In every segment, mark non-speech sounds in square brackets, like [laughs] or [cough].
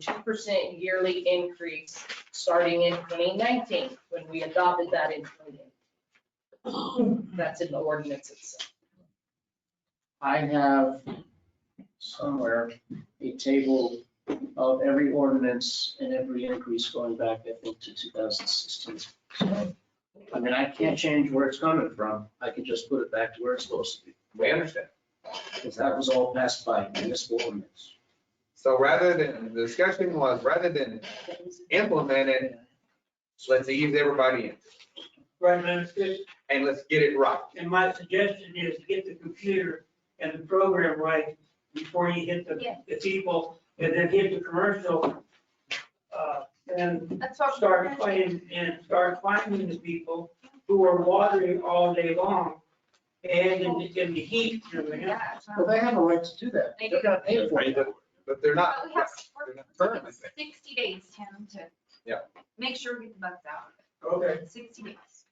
two percent yearly increase starting in twenty nineteen, when we adopted that in twenty. That's in the ordinance itself. I have somewhere a table of every ordinance and every increase going back, I think, to two thousand sixteen. I mean, I can't change where it's coming from. I can just put it back to where it's supposed to be, We understand. because that was all passed by municipal ordinance. So rather than, the discussion was rather than implement it, let's ease everybody in Right, but it's just, and let's get it right. and my suggestion is to get the computer and the program right before you hit the, Yeah. the people, and then hit the commercial. uh, And That's what. start playing, and start finding the people who are watering all day long and in, the- in the heat, you know, and- Yeah. it's not- Well, they have a right to do that. They're gonna pay for it. But they're not. But we have, they're not we're looking currently at sixty days, Tim, to. Yeah. Make sure we get the bugs out. Okay, Sixty days.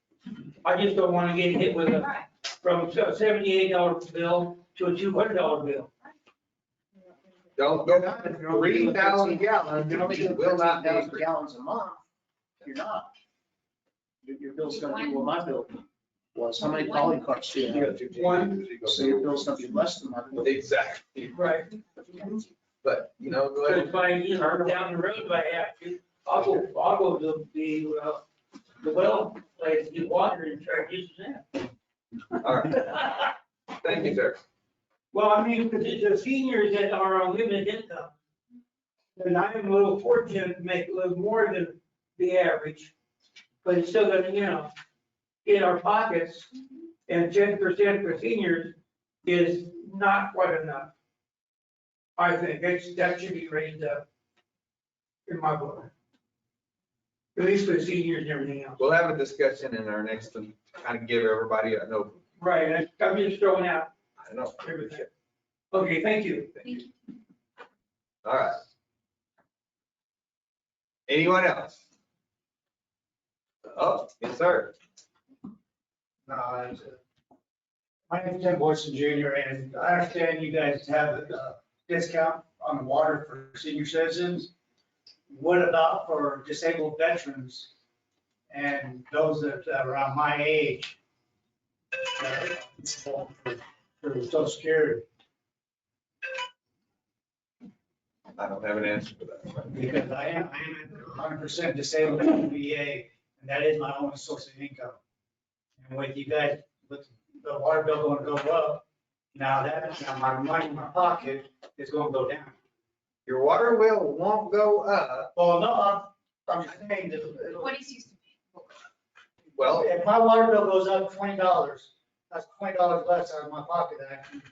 I just don't wanna get hit with a, Right. from a seventy-eight dollar bill to a two hundred dollar bill. Don't go down to three thousand gallons, you know, If you do it will not be. 15,000 gallons a month, you're not. Your, your bill's gonna be, well, my bill was, how many poly carts do you have? One. So your bill's gonna be less than my bill. Exactly, Right. but you know, go But ahead. if I, you know, down the road, if I have to, I'll go, I'll go to the, uh, the well place, get water and try to use it. all right, [laughs] thank you, sir. Well, I mean, the, the seniors that are on limited income, and I am a little fortunate to make a little more than the average, but it's still gonna, you know, in our pockets, and ten percent for seniors is not quite enough. I think it's, that should be raised up in my book. At least for the seniors and everything else. We'll have a discussion in our next, one, kind of give everybody an open, Right, I- I'm just throwing out I don't know. everything. Okay, thank you. Thank you. All right. Anyone else? Oh, yes, sir. No, I was, uh, My name's Tim Boyson Jr., and I understand you guys have a discount on water for senior citizens. What about for disabled veterans and those that are on my age? uh, For for social security, I don't have an answer for that. because I am, I am hundred percent disabled from VA, and that is my only source of income. And with you guys, with the water bill going to go up, now that, now my money in my pocket is going to go down. Your water bill won't go up. Well, no, I'm, I'm just saying that it'll- What is used to be. Well, if my water bill goes up twenty dollars, that's twenty dollars less out of my pocket that I can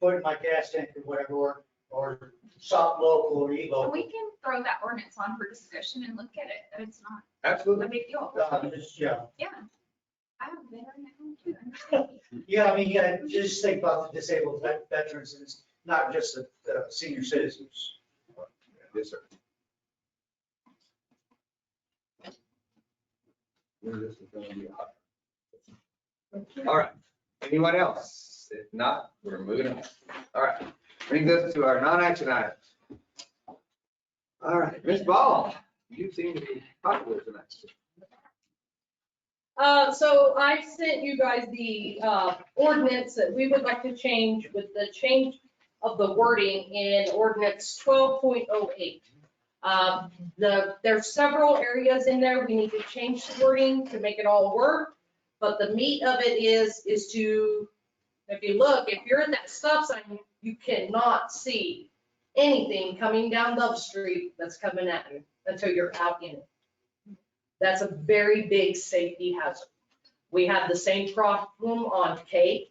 put in my gas tank or whatever, or- or shop local or eat So local. we can throw that ordinance on for discussion and look at it. It's not absolutely. a big deal. Uh, just, Yeah. Yeah. I'm better now too. I'm just- Yeah, I mean, yeah, just think about the disabled vet- veterans, and it's not just the, the senior citizens. Yes, sir. This is gonna be hot. All right, anyone else? If not, we're moving on. All right, brings us to our non-action items. All right, Ms. Ball, you seem to be popular tonight. Uh, so I sent you guys the, uh, ordinance that we would like to change with the change of the wording in ordinance twelve point oh eight. Um, the, there's several areas in there, we need to change the wording to make it all work, but the meat of it is, is to, if you look, if you're in that stop sign, you cannot see anything coming down Love Street that's coming at you until you're out in it that's a very big safety hazard. We have the same problem on K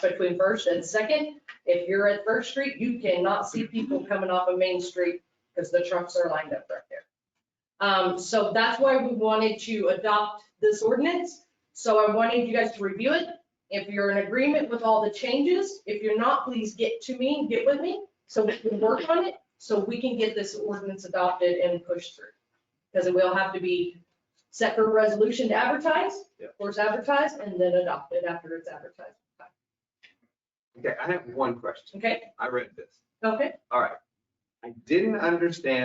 between First and Second. If you're at First Street, you cannot see people coming off of Main Street because the trucks are lined up right there. Um, so that's why we wanted to adopt this ordinance. So I wanted you guys to review it. If you're in agreement with all the changes, if you're not, please get to me, and get with me, so we can work on it, so we can get this ordinance adopted and pushed through. Because it will have to be separate resolution to advertise, Yeah. of course, advertise, and then adopt it after it's advertised. Okay, I have one question. Okay, I read this. okay, All right. I didn't understand